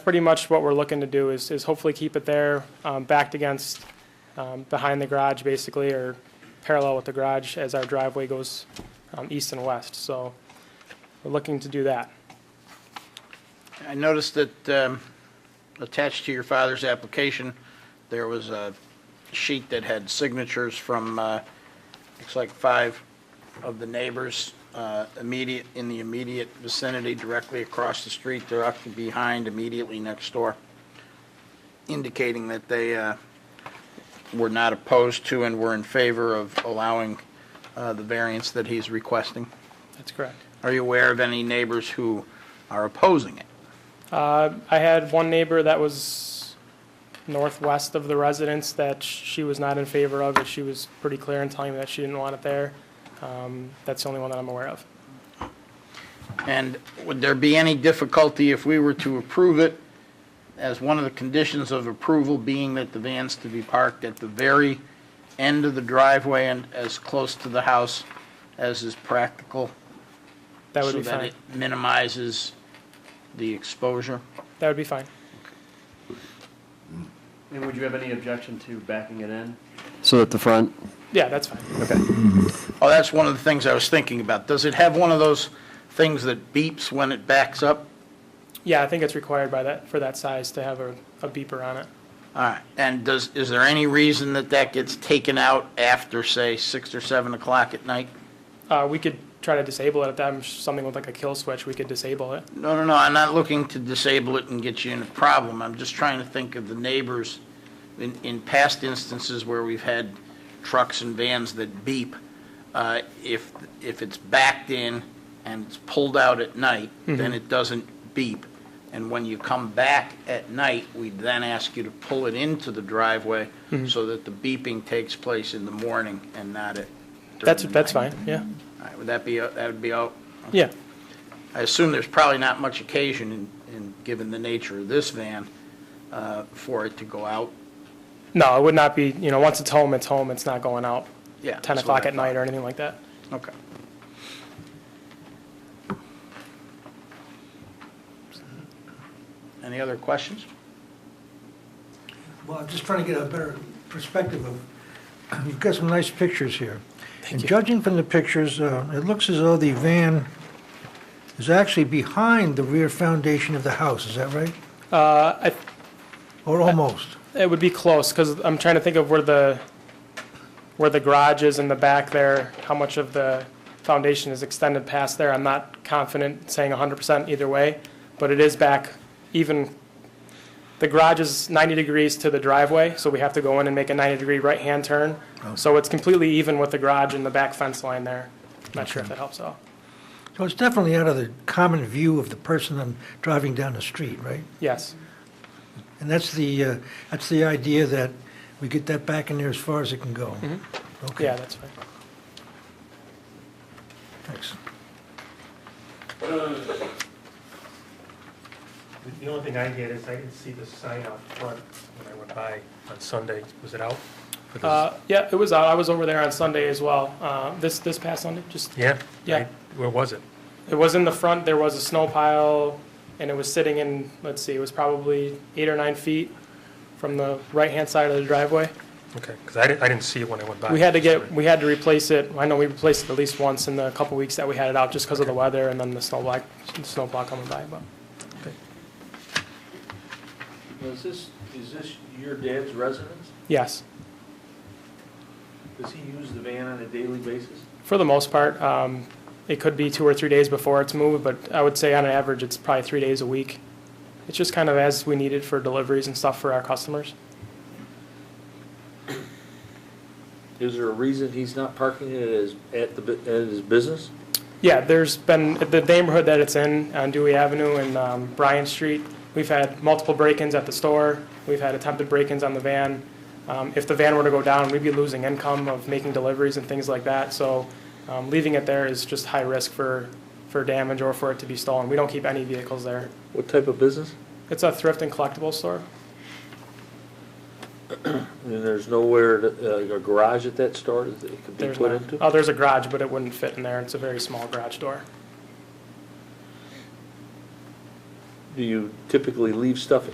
Pretty much what we're looking to do is, is hopefully keep it there, um, backed against, um, behind the garage basically, or parallel with the garage as our driveway goes, um, east and west, so we're looking to do that. I noticed that um, attached to your father's application, there was a sheet that had signatures from, uh, looks like five of the neighbors uh, immediate, in the immediate vicinity, directly across the street, directly behind, immediately next door, indicating that they uh, were not opposed to and were in favor of allowing uh, the variance that he's requesting. That's correct. Are you aware of any neighbors who are opposing it? Uh, I had one neighbor that was northwest of the residence that sh- she was not in favor of, and she was pretty clear in telling me that she didn't want it there. Um, That's the only one that I'm aware of. And would there be any difficulty if we were to approve it as one of the conditions of approval being that the van's to be parked at the very end of the driveway and as close to the house as is practical? That would be So that fine. it minimizes the exposure? That would be fine. And would you have any objection to backing it in? So at the front? Yeah, that's fine. Oh, that's one of the things I was thinking about. Does it have one of those things that beeps when it backs up? Yeah, I think it's required by that, for that size to have a a beeper on it. All right, and does, is there any reason that that gets taken out after, say, 6 or 7 o'clock at night? Uh, We could try to disable it if that, something with like a kill switch, we could disable it. No, no, no, I'm not looking to disable it and get you in a problem. I'm just trying to think of the neighbors in, in past instances where we've had trucks and vans that beep. uh, If, if it's backed in and it's pulled out at night, Mm-hmm. then it doesn't beep. And when you come back at night, we then ask you to pull it into the driveway Mm-hmm. so that the beeping takes place in the morning and not at, during That's, the night. that's fine, yeah. All right, Would that be, that would be all? Yeah, I assume there's probably not much occasion, in- in, given the nature of this van, uh, for it to go out. no, it would not be, you know, once it's home, it's home, it's not going out Yeah. 10 that's what o'clock I at night or anything like that. thought. Okay. Any other questions? Well, I'm just trying to get a better perspective of, you've got some nice pictures here. And judging from the pictures, uh, it looks as though the van is actually behind the rear foundation of the house, is that right? Uh, I Or almost? It would be close, because I'm trying to think of where the, where the garage is in the back there, how much of the foundation is extended past there. I'm not confident saying 100% either way, but it is back even, the garage is 90 degrees to the driveway, so we have to go in and make a 90-degree right-hand turn. So it's completely even with the garage and the back fence line there. Not sure if that helps out. So it's definitely out of the common view of the person I'm driving down the street, right? Yes, And that's the, uh, that's the idea that we get that back in there as far as it can go. Okay, yeah, that's fine. Thanks. The only thing I get is I didn't see the sign out front when I went by on Sunday. Was it out? Uh, Yeah, it was out, I was over there on Sunday as well, Uh, this, this past Sunday, just Yeah? Yeah. I- Where was it? It was in the front, there was a snow pile, and it was sitting in, let's see, it was probably eight or nine feet from the right-hand side of the driveway. Okay, because I didn't, I didn't see it when I went by. We had to get, we had to replace it, I know we replaced it at least once in the couple weeks that we had it out, just because of the weather and then the snow block, the snow block coming by, but. Is this, is this your dad's residence? Yes, Does he use the van on a daily basis? for the most part, um, it could be two or three days before it's moved, but I would say on average, it's probably three days a week. It's just kind of as we need it for deliveries and stuff for our customers. Is there a reason he's not parking it at his, at the, bu- at his business? Yeah, there's been, the neighborhood that it's in, on Dewey Avenue and um, Bryan Street, we've had multiple break-ins at the store, we've had attempted break-ins on the van. Um, If the van were to go down, we'd be losing income of making deliveries and things like that, so um, leaving it there is just high risk for, for damage or for it to be stolen. We don't keep any vehicles there. What type of business? It's a thrift and collectible store. And there's nowhere, to- uh, a garage at that store that it could be There's put not- into? Oh, there's a garage, but it wouldn't fit in there, it's a very small garage door. do you typically leave stuff